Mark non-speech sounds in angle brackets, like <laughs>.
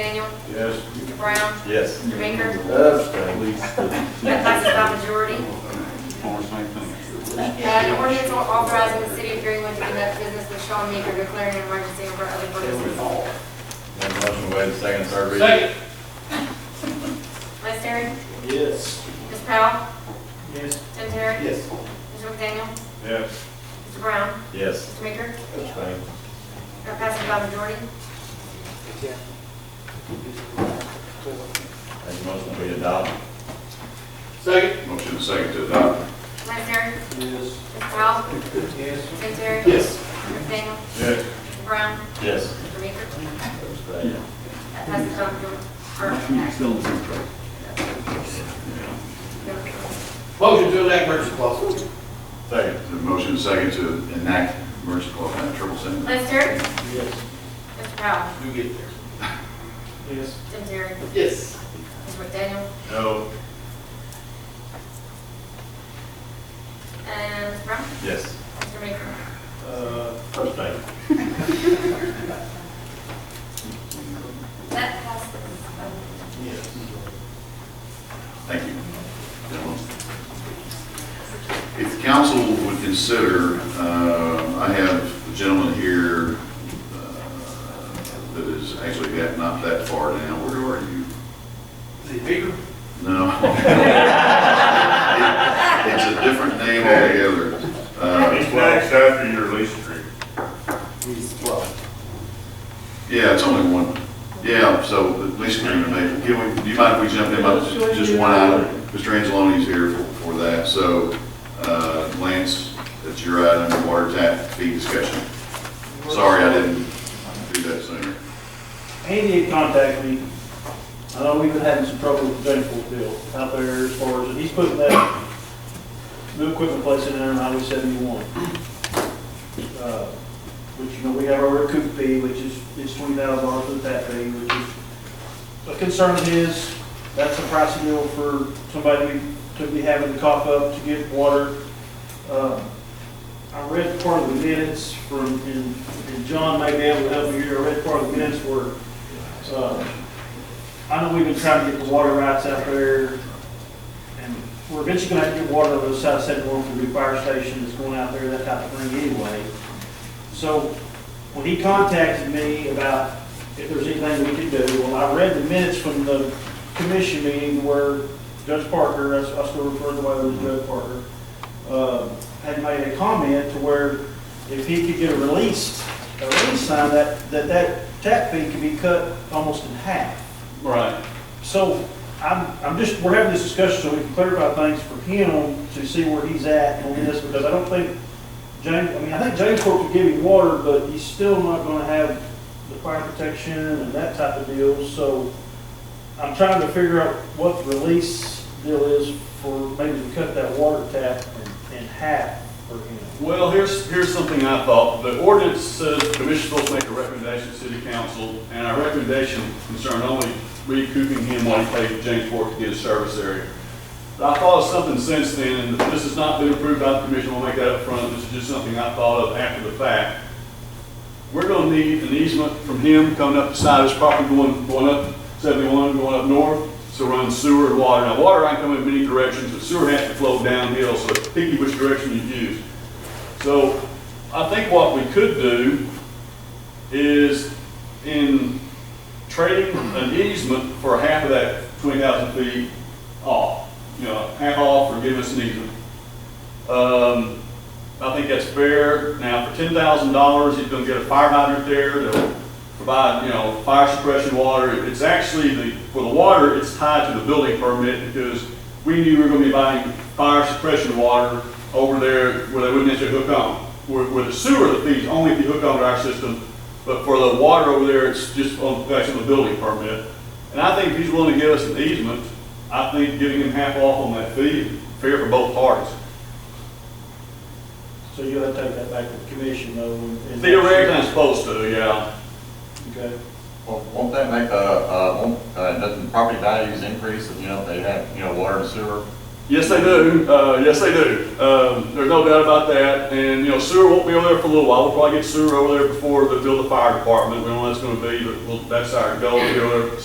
Ham, Yes. Mr. Brown, Yes. Mr. Baker. That Abstain. passes by majority. Uh, An ordinance authorizing the city of Greenwood to conduct business with Sean Meeker declaring an emergency over other purposes. Have a motion to waive the second, and third reading? Second. Vice Terry, Yes. Ms. Powell, Yes. Tim Terry, Yes. Mr. McDaniel, Yes. Mr. Brown, Yes. Mr. Meeker. Abstain. That passes by majority. Have a motion to adopt? Second. Motion second to adopt. Vice Terry, Yes. Ms. Powell, Yes. Tim Terry, Yes. Mr. McDaniel, Yes. Mr. Brown, Yes. Mr. Meeker. Abstain. That passes by majority. Or- Motion to elect emergency clause. Second. The motion second to enact emergency clause, and triple sentence. Vice Terry, Yes. Mr. Powell, You get there. Yes. Tim Terry, Yes. Mr. McDaniel, No. and Mr. Brown, Yes. Mr. Meeker. Uh, Abstain. That passes. by majority. yes. Thank you. gentlemen. If the council would consider, uh, I have a gentleman here uh, that is actually got not that far down. Where are you? Is it bigger? No. <laughs> It's a different name altogether. He's Uh, next after your lease agreement. Yeah, it's only one. Yeah, so the lease agreement, may- can we, do you mind if we jump in about just one item? Mr. Angeloni's here for, for that, so, uh, Lance, that's your item, water tap fee discussion. Sorry, I didn't do that sooner. He did contact me. I know we've been having some trouble with Jamesport Bill out there as far as, he's putting that new equipment place in there on Highway seventy-one. Uh, Which, you know, we have our recoup fee, which is, it's twenty thousand dollars for the tap fee, which is a concern of his. That's a pricey deal for somebody to be having to cough up to get water. Um, I read part of the minutes from, and and John may be able to help me here, I read part of the minutes where, uh, I know we've been trying to get the water rights out there, and we're eventually gonna have to get water on the side of seventy-one for the new fire station that's going out there, that type of thing anyway. So, when he contacted me about if there's anything we could do, well, I read the minutes from the commission meeting where Judge Parker, I I still refer to him as Judge Parker, uh, had made a comment to where if he could get a release, a release sign, that, that that tap fee could be cut almost in half. Right. So I'm, I'm just, we're having this discussion so we can clarify things for him to see where he's at on this, because I don't think James, I mean, I think James Fork could give him water, but he's still not gonna have the fire protection and that type of deal, so I'm trying to figure out what the release deal is for maybe to cut that water tap in- in half for him. Well, here's, here's something I thought. The ordinance says the commission supposed to make a recommendation to city council, and our recommendation concerned only recouping him what he paid to James Fork to get his service area. But I thought of something since then, and this has not been approved by the commission, we'll make that up front. This is just something I thought of after the fact. We're gonna need an easement from him coming up the side of his property, going, going up seventy-one, going up north, so run sewer and water. Now, water I can come in many directions, but sewer has to flow downhill, so picky which direction you use. So I think what we could do is in trading an easement for half of that twenty thousand feet off, you know, half off or give us an easement. Um, I think that's fair. Now, for ten thousand dollars, he's gonna get a fire hydrant there that'll provide, you know, fire suppression water. It's actually the, for the water, it's tied to the building permit because we knew we were gonna be buying fire suppression water over there where they wouldn't necessarily hook on. Where, where the sewer, the fees, only if you hook on to our system, but for the water over there, it's just on, that's on the building permit. And I think if he's willing to give us an easement, I think giving him half off on that fee, is fair for both parties. So you'll have to take that back to the commission though. and- Theoretically, it's supposed to, yeah. Okay. Well, won't that make, uh, uh, won't, uh, doesn't property values increase if, you know, they have, you know, water and sewer? Yes, they do, uh, yes, they do. Um, there's no doubt about that, and, you know, sewer won't be over there for a little while, we'll probably get sewer over there before they build the fire department, we don't know what that's gonna be, but we'll- that's our goal, to be over there